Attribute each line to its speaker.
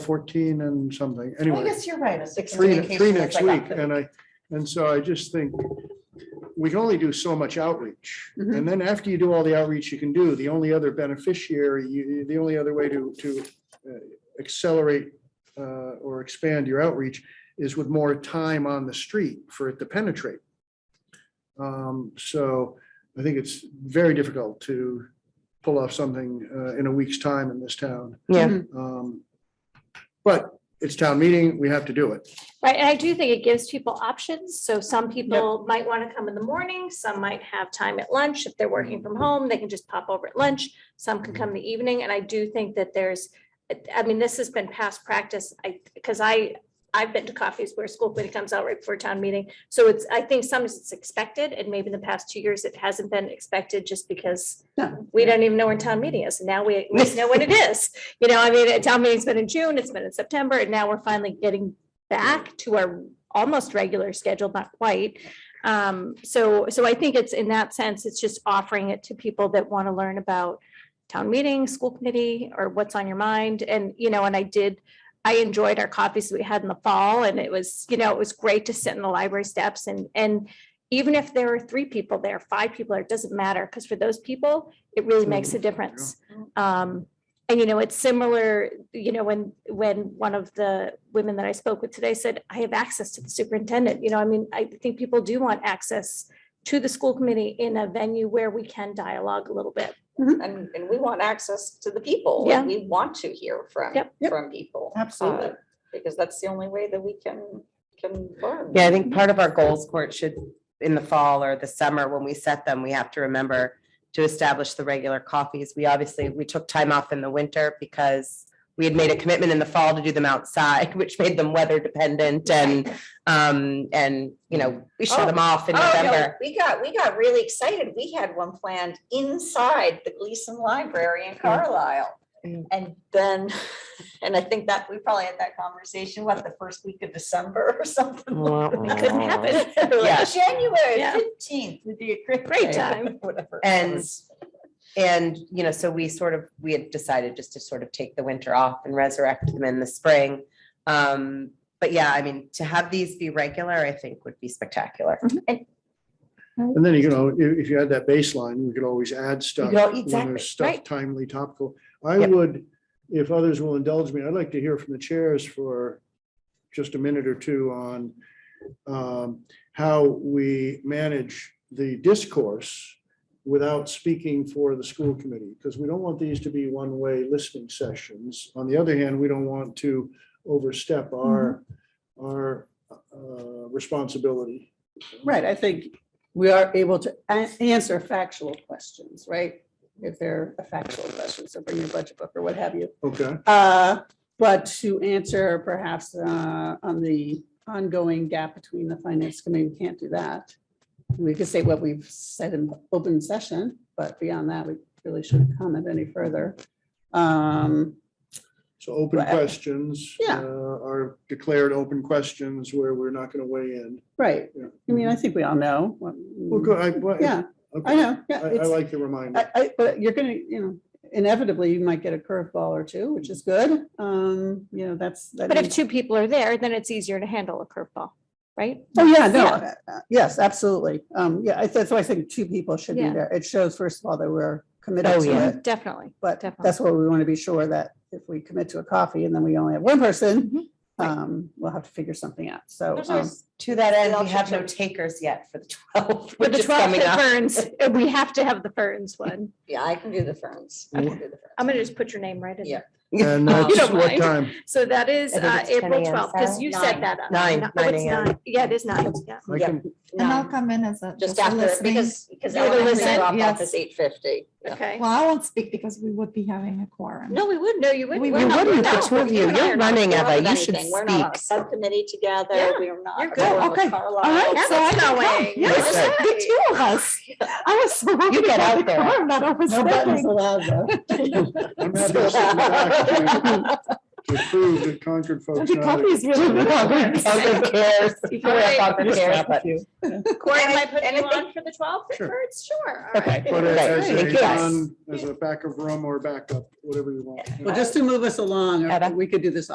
Speaker 1: fourteen and something,
Speaker 2: Well, I
Speaker 1: anyway,
Speaker 2: guess you're right. a
Speaker 1: three,
Speaker 2: 16
Speaker 1: three
Speaker 2: communication
Speaker 1: next
Speaker 2: is like
Speaker 1: week,
Speaker 2: a-
Speaker 1: and I, and so I just think we can only do so much outreach,
Speaker 2: Mhm.
Speaker 1: and then after you do all the outreach you can do, the only other beneficiary, you, the only other way to, to uh, accelerate uh, or expand your outreach is with more time on the street for it to penetrate. Um, so I think it's very difficult to pull off something uh, in a week's time in this town.
Speaker 3: Yeah,
Speaker 1: Um, But it's town meeting, we have to do it.
Speaker 4: Right, and I do think it gives people options, so some people might want to come in the morning, some might have time at lunch, if they're working from home, they can just pop over at lunch. Some can come in the evening, and I do think that there's, I mean, this has been past practice, I, because I, I've been to coffees where school committee comes out right before town meeting, so it's, I think sometimes it's expected, and maybe in the past two years, it hasn't been expected just because
Speaker 2: No.
Speaker 4: we don't even know when town meeting is, and now we, we know when it is. You know, I mean, a town meeting's been in June, it's been in September, and now we're finally getting back to our almost regular schedule, not quite. Um, so, so I think it's in that sense, it's just offering it to people that want to learn about town meeting, school committee, or what's on your mind. And, you know, and I did, I enjoyed our coffees we had in the fall and it was, you know, it was great to sit in the library steps and, and even if there are three people there, five people, there, it doesn't matter, because for those people, it really makes a difference. Um, and you know, it's similar, you know, when, when one of the women that I spoke with today said, I have access to the superintendent, you know, I mean, I think people do want access to the school committee in a venue where we can dialogue a little bit.
Speaker 5: And, and we want access to the people.
Speaker 4: Yeah.
Speaker 5: and We want to hear from,
Speaker 4: Yep.
Speaker 2: Yep.
Speaker 5: from people.
Speaker 2: Absolutely.
Speaker 5: uh, Because that's the only way that we can, can learn.
Speaker 3: yeah, I think part of our goals court should, in the fall or the summer, when we set them, we have to remember to establish the regular coffees. We obviously, we took time off in the winter because we had made a commitment in the fall to do them outside, which made them weather dependent and, um, and, you know, we shut them off in
Speaker 5: Oh, no,
Speaker 3: November.
Speaker 5: we got, we got really excited. We had one planned inside the Gleason Library in Carlisle.
Speaker 3: Mm.
Speaker 5: And then, and I think that we probably had that conversation, what, the first week of December or something? "Oh,
Speaker 4: It couldn't happen.
Speaker 3: Yeah.
Speaker 5: January
Speaker 4: Yeah.
Speaker 5: fifteenth would be a great.
Speaker 4: Great
Speaker 5: day,
Speaker 4: time.
Speaker 5: Whatever. it
Speaker 3: And-
Speaker 5: was.
Speaker 3: And, you know, so we sort of, we had decided just to sort of take the winter off and resurrect them in the spring. Um, but yeah, I mean, to have these be regular, I think would be spectacular.
Speaker 1: And then, you know, if, if you had that baseline, we could always add stuff.
Speaker 3: could al-
Speaker 1: when
Speaker 3: exactly,
Speaker 1: there's Stuff
Speaker 3: right.
Speaker 1: timely, topical. I
Speaker 3: Yep.
Speaker 1: would, if others will indulge me, I'd like to hear from the chairs for just a minute or two on um, how we manage the discourse without speaking for the school committee, because we don't want these to be one-way listening sessions. On the other hand, we don't want to overstep our,
Speaker 3: Mm-hmm.
Speaker 1: our uh, responsibility.
Speaker 2: Right, I think we are able to a- answer factual questions, right? If they're a factual question, so bring your budget book or what have you.
Speaker 1: Okay.
Speaker 2: Uh, But to answer perhaps uh, on the ongoing gap between the finance committee, we can't do that. We could say what we've said in open session, but beyond that, we really shouldn't comment any further. Um,
Speaker 1: So open
Speaker 2: Right.
Speaker 1: questions.
Speaker 2: Yeah.
Speaker 1: uh, Are declared open questions where we're not going to weigh in.
Speaker 2: Right,
Speaker 1: Yeah.
Speaker 2: I mean, I think we all know. what-
Speaker 1: Well, good. I, well,
Speaker 2: Yeah, I
Speaker 1: okay.
Speaker 2: know, yeah.
Speaker 1: I, I
Speaker 2: it's-
Speaker 1: like the reminder.
Speaker 2: I, I, but you're gonna, you know, inevitably, you might get a curveball or two, which is good. Um, you know, that's. that
Speaker 4: But if
Speaker 2: means-
Speaker 4: two people are there, then it's easier to handle a curveball, right?
Speaker 2: Oh, yeah, no,
Speaker 4: Yeah.
Speaker 2: uh, uh, yes, absolutely. Um, yeah, I- that's why I think two people should be
Speaker 4: Yeah.
Speaker 2: there. It shows, first of all, that we're committed
Speaker 3: Oh,
Speaker 2: to
Speaker 3: yeah.
Speaker 2: it.
Speaker 4: Definitely.
Speaker 2: But
Speaker 4: definitely.
Speaker 2: that's what we want to be sure that if we commit to a coffee and then we only have one person,
Speaker 4: Mhm.
Speaker 5: Right.
Speaker 2: um, we'll have to figure something out. So,
Speaker 5: There's
Speaker 2: um,
Speaker 5: always-
Speaker 3: To that end,
Speaker 5: Well,
Speaker 3: we have no
Speaker 5: sure.
Speaker 3: takers yet for the twelve,
Speaker 4: With
Speaker 3: which
Speaker 4: the
Speaker 3: is
Speaker 4: 12
Speaker 3: coming
Speaker 4: at
Speaker 3: up.
Speaker 4: Ferns, we have to have the Ferns one.
Speaker 5: Yeah, I can do the ferns. I
Speaker 3: Mm.
Speaker 5: can do the
Speaker 4: I'm
Speaker 5: ferns.
Speaker 4: gonna just put your name right in
Speaker 5: Yeah.
Speaker 4: there.
Speaker 1: And
Speaker 3: You
Speaker 1: that's
Speaker 4: don't
Speaker 1: what
Speaker 4: mind.
Speaker 1: time?
Speaker 4: So that is
Speaker 3: I think
Speaker 4: uh,
Speaker 3: it's 10
Speaker 4: April
Speaker 3: a.m.,
Speaker 4: 12th, because you said
Speaker 5: Nine.
Speaker 4: that. uh,
Speaker 3: Nine,
Speaker 4: oh,
Speaker 3: nine
Speaker 4: it's
Speaker 3: a.m.
Speaker 4: nine. Yeah, it is nine, yeah.
Speaker 1: I
Speaker 5: Yeah.
Speaker 1: can,
Speaker 6: And I'll
Speaker 5: Nine.
Speaker 6: come in as a.
Speaker 5: Just
Speaker 6: a
Speaker 5: after,
Speaker 6: listening-
Speaker 5: because, because
Speaker 4: You're the
Speaker 5: elementary
Speaker 4: listener,
Speaker 5: drop off
Speaker 6: yes.
Speaker 5: is eight fifty.
Speaker 4: Okay.
Speaker 6: Well, I won't speak because we would be having a quorum.
Speaker 4: No, we wouldn't. No, you wouldn't.
Speaker 6: We
Speaker 4: We're
Speaker 6: You
Speaker 4: not-
Speaker 3: wouldn't,
Speaker 4: no,
Speaker 3: the two of you.
Speaker 4: and I
Speaker 3: You're
Speaker 4: are not.
Speaker 3: running.
Speaker 5: We're not
Speaker 3: Eva,
Speaker 5: on
Speaker 3: you should
Speaker 5: anything. We're not on a
Speaker 3: speak.
Speaker 5: Subcommittee together,
Speaker 4: Yeah,
Speaker 5: we are not.
Speaker 4: you're good.
Speaker 5: going with
Speaker 6: Okay.
Speaker 5: Carlisle.
Speaker 6: All right.
Speaker 4: Yeah,
Speaker 6: So I
Speaker 4: that's
Speaker 6: can
Speaker 4: not
Speaker 6: come.
Speaker 4: weighing.
Speaker 6: Yes,
Speaker 4: Okay.
Speaker 6: the two of us. I was so happy.
Speaker 3: You
Speaker 6: to
Speaker 3: get
Speaker 6: have
Speaker 3: out
Speaker 6: the
Speaker 3: there.
Speaker 6: quorum That I was
Speaker 2: no buttons
Speaker 6: thinking.
Speaker 2: allowed though.
Speaker 1: I'm happy to sit in the back to- to prove that Concord folks.
Speaker 6: The
Speaker 1: know
Speaker 6: coffee
Speaker 1: that-
Speaker 6: is really good.
Speaker 3: Concord cares. You can wear
Speaker 4: Alright.
Speaker 3: Concord cares, but-
Speaker 4: Corey, am I
Speaker 5: Anything-
Speaker 4: putting you
Speaker 5: anything-
Speaker 4: on for the 12th?
Speaker 1: Sure.
Speaker 4: First? Sure. all
Speaker 3: Okay.
Speaker 4: right.
Speaker 1: But
Speaker 3: Right,
Speaker 1: as
Speaker 3: thank
Speaker 1: a,
Speaker 3: you.
Speaker 1: non- as a back of room or backup, whatever you want.
Speaker 2: Well, just to move us along,
Speaker 3: Eva?
Speaker 2: we could do this